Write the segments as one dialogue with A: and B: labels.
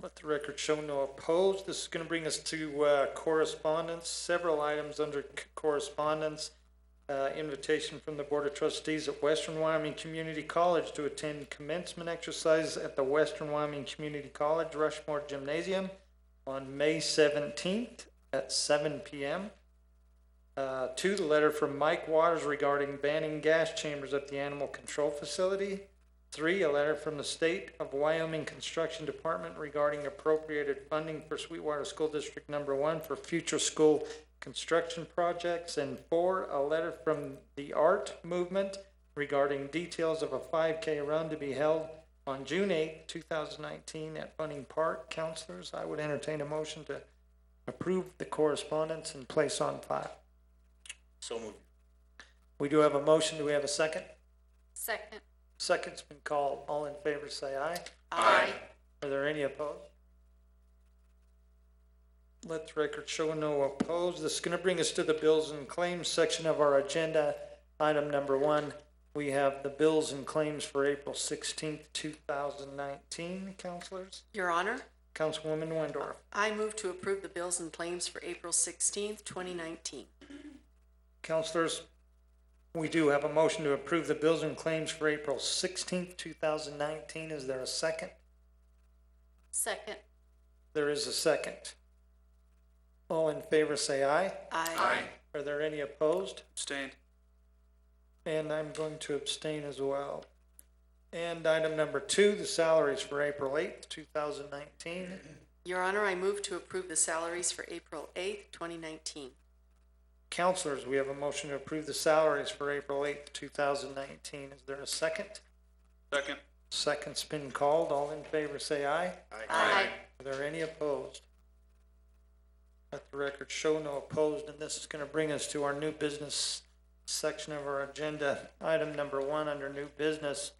A: Let the record show no opposed. This is going to bring us to uh, correspondence, several items under c- correspondence. Uh, Invitation from the Board of Trustees at Western Wyoming Community College to attend commencement exercises at the Western Wyoming Community College Rushmore Gymnasium on May seventeenth at seven PM. Uh, Two, the letter from Mike Waters regarding banning gas chambers at the animal control facility. Three, a letter from the State of Wyoming Construction Department regarding appropriated funding for Sweetwater School District Number One for future school construction projects. And four, a letter from the Art Movement regarding details of a five K run to be held on June eighth, two thousand nineteen at Bunning Park. Counselors, I would entertain a motion to approve the correspondence and place on file.
B: So moved.
A: We do have a motion. Do we have a second?
C: Second.
A: Second's been called. All in favor, say aye.
B: Aye.
A: Are there any opposed? Let the record show no opposed. This is gonna bring us to the bills and claims section of our agenda. Item number one, we have the bills and claims for April sixteenth, two thousand nineteen. Counselors,
C: Your Honor,
A: Councilwoman Wendorf,
C: I move to approve the bills and claims for April sixteenth, twenty nineteen.
A: counselors, we do have a motion to approve the bills and claims for April sixteenth, two thousand nineteen. Is there a second?
C: Second.
A: There is a second. All in favor, say aye.
C: Aye.
A: Are there any opposed?
B: Abstained.
A: And I'm going to abstain as well. And item number two, the salaries for April eighth, two thousand nineteen.
C: Your Honor, I move to approve the salaries for April eighth, twenty nineteen.
A: Counselors, we have a motion to approve the salaries for April eighth, two thousand nineteen. Is there a second?
B: Second.
A: Second's been called. All in favor, say aye.
C: Aye.
A: Are there any opposed? Let the record show no opposed, and this is gonna bring us to our new business section of our agenda. Item number one under new business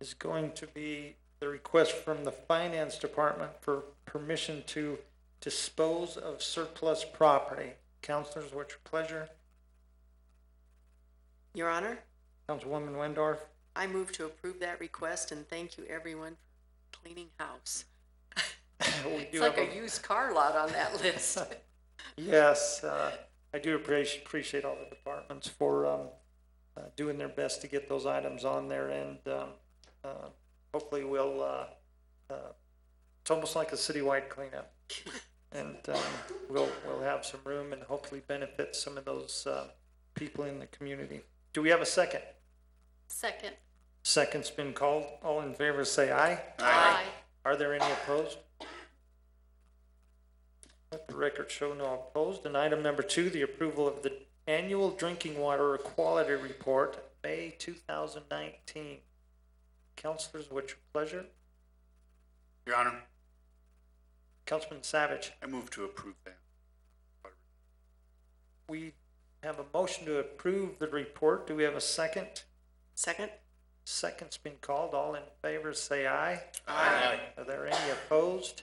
A: is going to be the request from the finance department for permission to dispose of surplus property. Counselors, what's your pleasure?
C: Your Honor,
A: Councilwoman Wendorf,
C: I move to approve that request and thank you everyone for cleaning house.
A: we
C: It's
A: do have
C: like
A: a.
C: a used car lot on that list.
A: Yes, uh, I do appreciate, appreciate all the departments for, um, uh, doing their best to get those items on there and, um, uh, hopefully we'll, uh, uh, it's almost like a citywide cleanup. And, um, we'll, we'll have some room and hopefully benefit some of those, uh, people in the community. Do we have a second?
C: Second.
A: Second's been called. All in favor, say aye. Are there any opposed? Let the record show no opposed. And item number two, the approval of the annual drinking water quality report, May two thousand nineteen. Councilors, what's your pleasure?
B: Your Honor,
A: Councilman Savage,
B: I move to approve that.
A: we have a motion to approve the report. Do we have a second?
C: Second.
A: Second's been called. All in favor, say aye.
B: Aye.
A: Are there any opposed?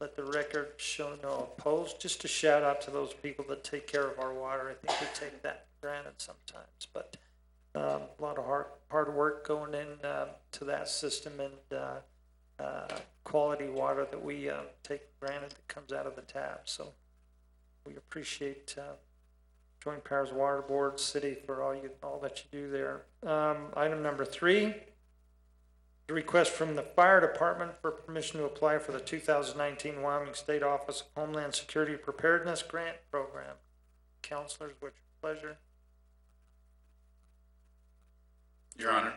A: Let the record show no opposed. Just a shout out to those people that take care of our water. I think we take that for granted sometimes, but um, a lot of hard, hard work going in uh, to that system and uh, uh, quality water that we uh, take for granted that comes out of the tap. So we appreciate uh, Joint Powers Water Board, city for all you, all that you do there. Um, Item number three, the request from the fire department for permission to apply for the two thousand nineteen Wyoming State Office of Homeland Security Preparedness Grant Program. Counselors, what's your pleasure?
B: Your Honor,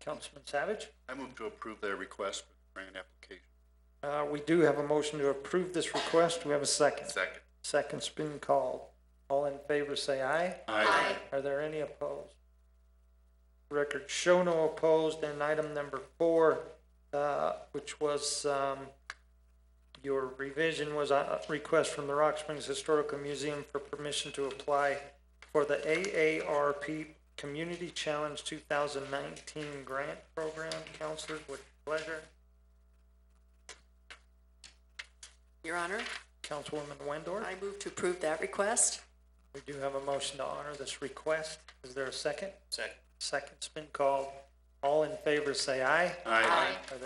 A: Councilman Savage?
B: I move to approve their request for the grant application.
A: Uh, we do have a motion to approve this request. Do we have a second?
B: Second.
A: Second's been called. All in favor, say aye.
B: Aye.
A: Are there any opposed? Record show no opposed, and item number four, uh, which was, um, your revision was a a request from the Rock Springs Historical Museum for permission to apply for the AARP Community Challenge two thousand nineteen grant program. Counselors, with pleasure.
C: Your Honor,
A: Councilwoman Wendorf,
C: I move to approve that request.
A: we do have a motion to honor this request. Is there a second?
B: Second.
A: Second's been called. All in favor, say aye.
B: Aye.
A: Are there